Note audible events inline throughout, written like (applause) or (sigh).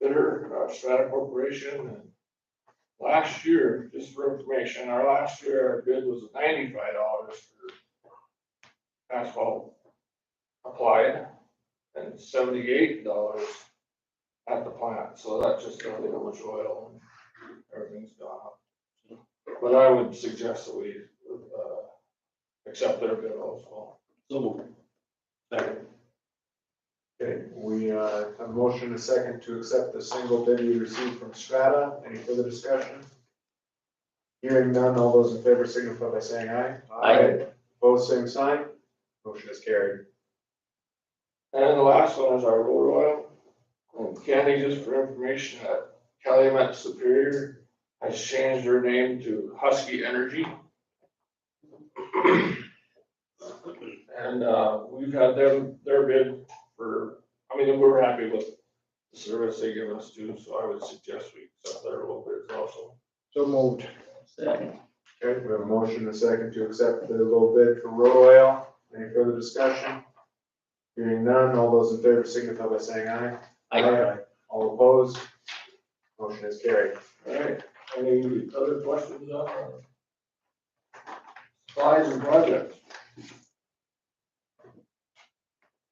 bidder, uh, Strata Corporation. and Last year, just for information, our last year, our bid was ninety-five dollars for asphalt applied and seventy-eight dollars at the plant, so that's just tells you how much oil and everything's gone up. But I would suggest that we, uh, accept their bid also. So moved. Second. Okay, we uh, have a motion and a second to accept the single bid we received from Strata. Any further discussion? Hearing none, all those in favor signify by saying aye. Aye. Opposed, same sign. Motion is carried. And the last one is our road oil. And Candy, just for information, uh, Calumet Superior has changed their name to Husky Energy. And, uh, we've had them, their bid for, I mean, we're happy with the service they give us too, so I would suggest we accept their little bids also. So moved. Second. Okay, we have a motion and a second to accept the low bid for road oil. Any further discussion? Hearing none, all those in favor signify by saying aye. All opposed? Motion is carried. All right, any other questions on our supplies and projects?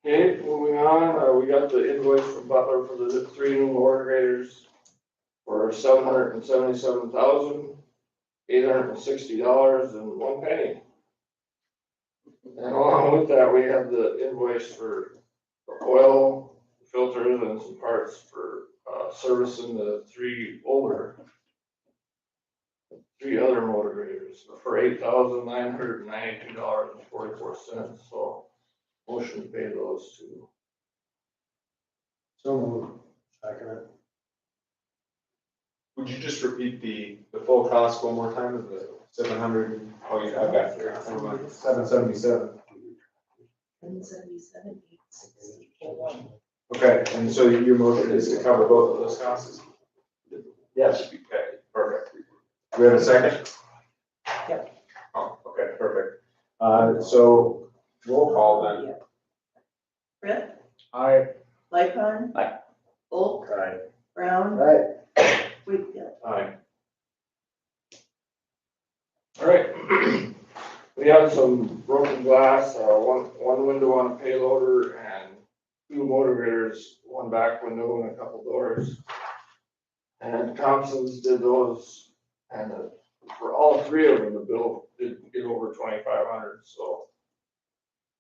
Okay, moving on, uh, we got the invoice from Butler for the three new water graders for seven hundred and seventy-seven thousand, eight hundred and sixty dollars and one penny. And along with that, we have the invoice for the oil filters and some parts for, uh, servicing the three older three other motor graders for eight thousand nine hundred and ninety-two dollars and forty-four cents, so motion to pay those two. So moved. Second. Would you just repeat the, the full cost one more time of the seven hundred? Oh, yeah, I've got here. Seven seventy-seven. One seventy-seven, eight sixty-one. Okay, and so your motion is to cover both of those costs? Yes. Okay, perfect. Do we have a second? Yep. Oh, okay, perfect. Uh, so roll call then. Brett, Aye. Lightcon. Aye. Volk, Aye. Brown, Aye. Wakefield. Aye. All right. (clears throat) We have some broken glass, uh, one, one window on a payloader and two motor graders, one back window and a couple doors. And Thompson's did those, and uh, for all three of them, the bill did get over twenty-five hundred, so.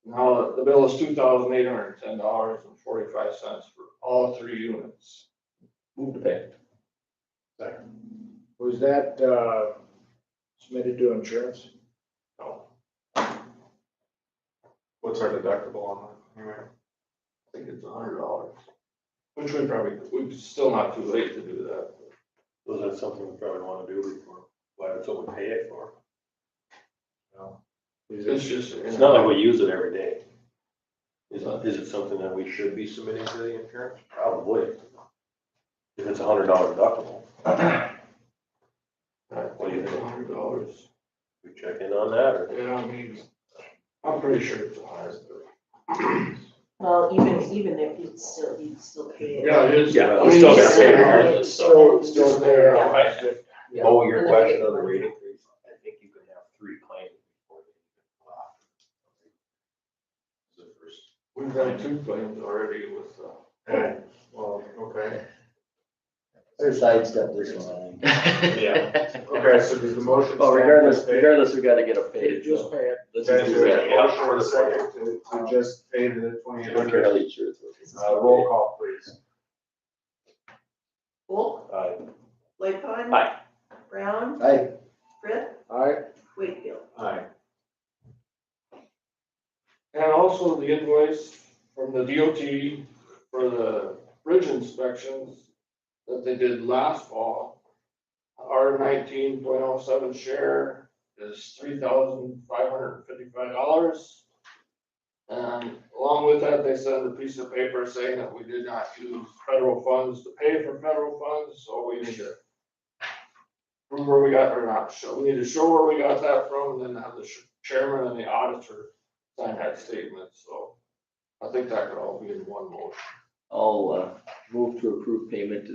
Now, the bill is two thousand eight hundred and ten dollars and forty-five cents for all three units. Move to pay. Was that uh, submitted to insurance? So What's our deductible on that? Anyway. I think it's a hundred dollars, which we probably, we're still not too late to do that. Was that something we probably wanna do before, why, that's what we pay it for? Is it- It's just. It's not like we use it every day. Is, it- is it something that we should be submitting to the insurance? Probably. If it's a hundred dollar deductible, What do you think? Hundred dollars. we check in on that, or Yeah, I mean, I'm pretty sure it's a hundred. Well, even, even if you'd still, you'd still pay it. Yeah, it is. Yeah, I we mean, still it's gotta pay still- regardless, so it's Still there. Yeah. Yeah. oh, your And then question they- on the rate increase, I think you can have three claims before they even go off. The first. We've done two claims already with, uh, Yeah, Well, okay. Their sidestep this (laughs) one. Yeah. Okay, so does the motion. Well, regardless, regardless, we gotta get it paid. Just pay it. Let's Okay, do so we have that. a motion and a second to, to just pay the twenty-eight hundred. Fairly true. Uh, roll call, please. Volk, Aye. Lightcon. Aye. Brown, Aye, Brett, Aye. Wakefield. Aye. and also the invoice from the DOT for the bridge inspections that they did last fall. Our nineteen point oh seven share is three thousand five hundred and fifty-five dollars. And along with that, they sent a piece of paper saying that we did not use federal funds to pay for federal funds, so we need to prove where we got or not show, we need to show where we got that from, and then have the chairman and the auditor sign that statement, so I think that could all be in one motion. I'll, uh, move to approve payment to